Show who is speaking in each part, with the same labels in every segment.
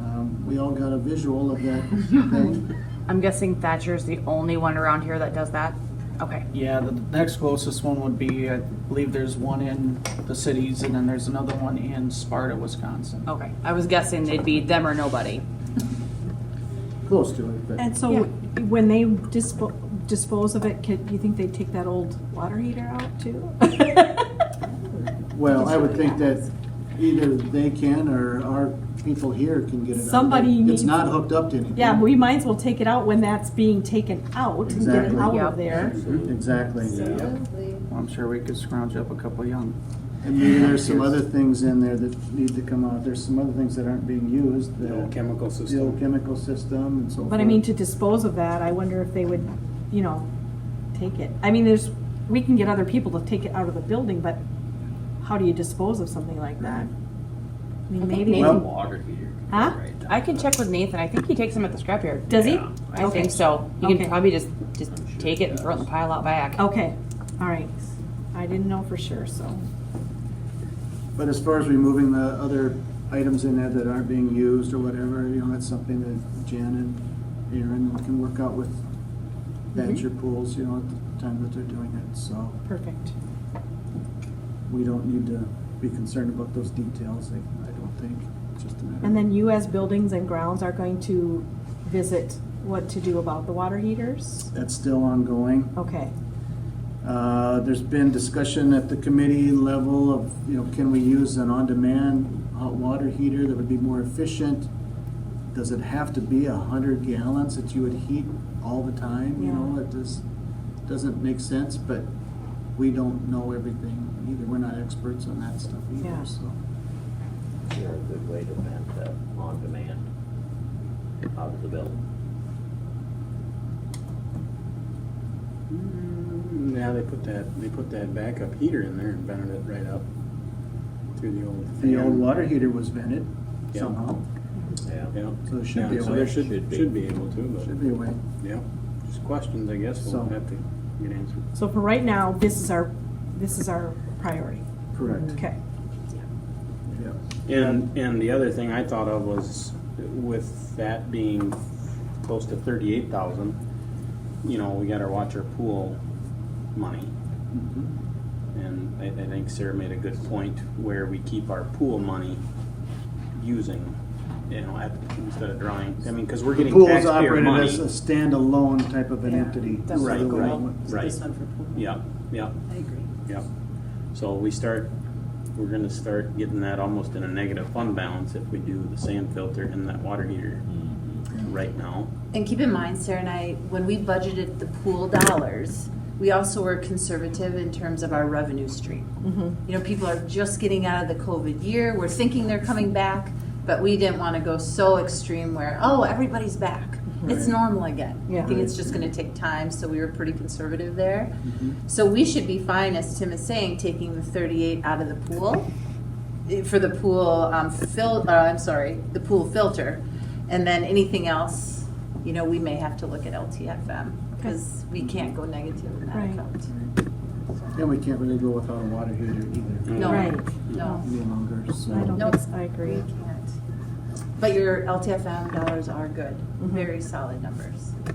Speaker 1: Um, we all got a visual of that thing.
Speaker 2: I'm guessing Thatcher's the only one around here that does that? Okay.
Speaker 3: Yeah, the next closest one would be, I believe there's one in the cities and then there's another one in Sparta, Wisconsin.
Speaker 2: Okay. I was guessing they'd be them or nobody.
Speaker 1: Close to it, but
Speaker 4: And so when they dispo- dispose of it, could, you think they'd take that old water heater out too?
Speaker 1: well, I would think that either they can or our people here can get it. out.
Speaker 4: Somebody
Speaker 1: It's
Speaker 4: needs-
Speaker 1: not hooked up to anything.
Speaker 4: Yeah, we might as well take it out when that's being taken out and get it
Speaker 1: Exactly.
Speaker 4: out
Speaker 2: Yeah.
Speaker 4: of there.
Speaker 1: Exactly.
Speaker 3: Well, I'm sure we could scrounge up a couple young.
Speaker 1: And maybe there's some other things in there that need to come out. There's some other things that aren't being used.
Speaker 5: The old chemical
Speaker 1: The old
Speaker 5: system.
Speaker 1: chemical system and so forth.
Speaker 4: But I mean, to dispose of that, I wonder if they would, you know, take it. I mean, there's, we can get other people to take it out of the building, but how do you dispose of something like that? I mean,
Speaker 2: I think
Speaker 4: maybe,
Speaker 1: Well-
Speaker 5: Water heater.
Speaker 4: Huh?
Speaker 2: I can check with Nathan. I think he takes them at the scrapyard.
Speaker 4: does he?
Speaker 5: Yeah.
Speaker 2: I
Speaker 4: Okay.
Speaker 2: think so. You can
Speaker 4: Okay.
Speaker 2: probably just just take it and throw it in the pile out back.
Speaker 4: Okay, all right. I didn't know for sure, so.
Speaker 1: But as far as removing the other items in there that aren't being used or whatever, you know, that's something that Jan and Aaron can work out with
Speaker 4: Mm-hmm.
Speaker 1: venture pools, you know, at the time that they're doing it, so
Speaker 4: Perfect.
Speaker 1: we don't need to be concerned about those details, I, I don't think, It's just a matter.
Speaker 4: And then you as buildings and grounds are going to visit what to do about the water heaters?
Speaker 1: That's still ongoing.
Speaker 4: Okay,
Speaker 1: Uh, There's been discussion at the committee level of, you know, can we use an on-demand hot water heater that would be more efficient? Does it have to be a hundred gallons that you would heat all the time, you know,
Speaker 4: Yeah.
Speaker 1: it just doesn't make sense, but we don't know everything either, we're not experts on that stuff
Speaker 4: Yeah.
Speaker 1: either, so.
Speaker 6: They're a good way to rent that on demand out of the building.
Speaker 5: Mm, Now they put that, they put that backup heater in there and vented it right up through the old fan.
Speaker 1: The old water heater was vented
Speaker 5: Yeah.
Speaker 1: somehow,
Speaker 6: Yeah.
Speaker 5: Yeah.
Speaker 1: so it should be
Speaker 5: Yeah,
Speaker 1: a
Speaker 5: so
Speaker 1: way,
Speaker 5: there
Speaker 1: should
Speaker 5: should,
Speaker 6: Should be.
Speaker 5: should be able to,
Speaker 1: be a way.
Speaker 5: but, yeah, just questions, I guess,
Speaker 1: So-
Speaker 5: we'll have to get answered.
Speaker 4: so for right now, this is our, this is our priority.
Speaker 1: Correct.
Speaker 4: Okay. Mm-hmm.
Speaker 1: Yeah.
Speaker 5: And, and the other thing I thought of was with that being close to thirty-eight thousand, you know, we gotta watch our pool money.
Speaker 1: Mm-hmm.
Speaker 5: And I, I think Sarah made a good point where we keep our pool money using, you know, at, instead of drawing, I mean, cause we're getting
Speaker 1: Pool is
Speaker 5: taxpayer
Speaker 1: operated
Speaker 5: money.
Speaker 1: as a standalone type of an
Speaker 4: Yeah.
Speaker 1: entity.
Speaker 7: That's
Speaker 5: Right,
Speaker 1: so the way
Speaker 5: right.
Speaker 1: it went-
Speaker 5: Right. Yeah, yeah,
Speaker 7: I agree.
Speaker 5: yeah. So we start, we're gonna start getting that almost in a negative fund balance if we do the sand filter and that water heater right now.
Speaker 7: And keep in mind, Sarah and I, when we budgeted the pool dollars, we also were conservative in terms of our revenue stream.
Speaker 4: Mhm.
Speaker 7: You know, people are just getting out of the COVID year, we're thinking they're coming back, but we didn't want to go so extreme where, oh, everybody's back. It's normal again. I
Speaker 4: Yeah.
Speaker 7: think it's just going to take time, so we were pretty conservative there.
Speaker 1: Mhm.
Speaker 7: So we should be fine, as Tim is saying, taking the 38 out of the pool eh, for the pool um, fil, uh, I'm sorry, the pool filter. And then anything else, you know, we may have to look at LTFM because we can't go negative in that
Speaker 4: Right.
Speaker 7: account.
Speaker 1: And we can't really go without a water heater either,
Speaker 7: No.
Speaker 4: Right.
Speaker 7: No.
Speaker 1: any longer, so.
Speaker 4: I don't
Speaker 7: Nope.
Speaker 4: think, so. I
Speaker 7: We
Speaker 4: agree.
Speaker 7: can't. But your LTFM dollars are good,
Speaker 4: Mm-hmm.
Speaker 7: very solid numbers. So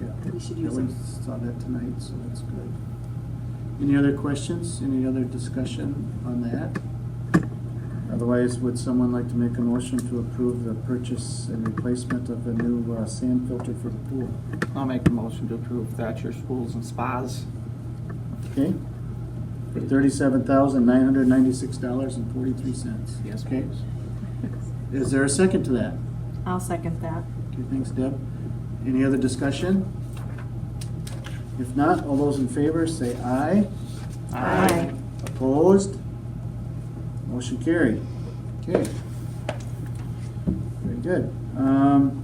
Speaker 1: Yeah.
Speaker 7: We should
Speaker 1: Yeah,
Speaker 7: use
Speaker 1: we
Speaker 7: them.
Speaker 1: saw that tonight, so that's good. Any other questions, any other discussion on that? Otherwise, would someone like to make a motion to approve the purchase and replacement of a new uh, sand filter for the pool?
Speaker 3: I'll make a motion to approve Thatcher's Pools and Spas.
Speaker 1: Okay? For thirty-seven thousand, nine hundred ninety-six dollars and forty-three cents.
Speaker 3: Yes,
Speaker 1: Okay.
Speaker 3: please.
Speaker 1: Is there a second to that?
Speaker 4: I'll second that.
Speaker 1: Okay, thanks, Deb. Any other discussion? If not, all those in favor say aye.
Speaker 4: Aye.
Speaker 1: Opposed? Motion carried. Okay. Very good. Um,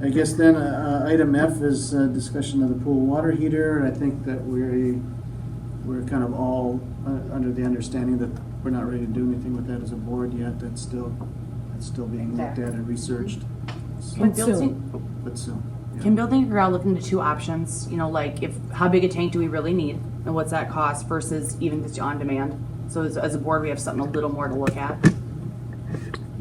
Speaker 1: I guess then, uh, uh, item F is uh, discussion of the pool water heater. I think that we're, we're kind of all uh, under the understanding that we're not ready to do anything with that as a board yet. That's still, that's still being looked at and researched. So-
Speaker 4: But
Speaker 2: Can
Speaker 4: soon.
Speaker 2: building,
Speaker 1: But soon. yeah.
Speaker 2: can building and ground look into two options? You know, like if how big a tank do we really need, and what's that cost versus even just on demand? So as, as a board, we have something a little more to look at.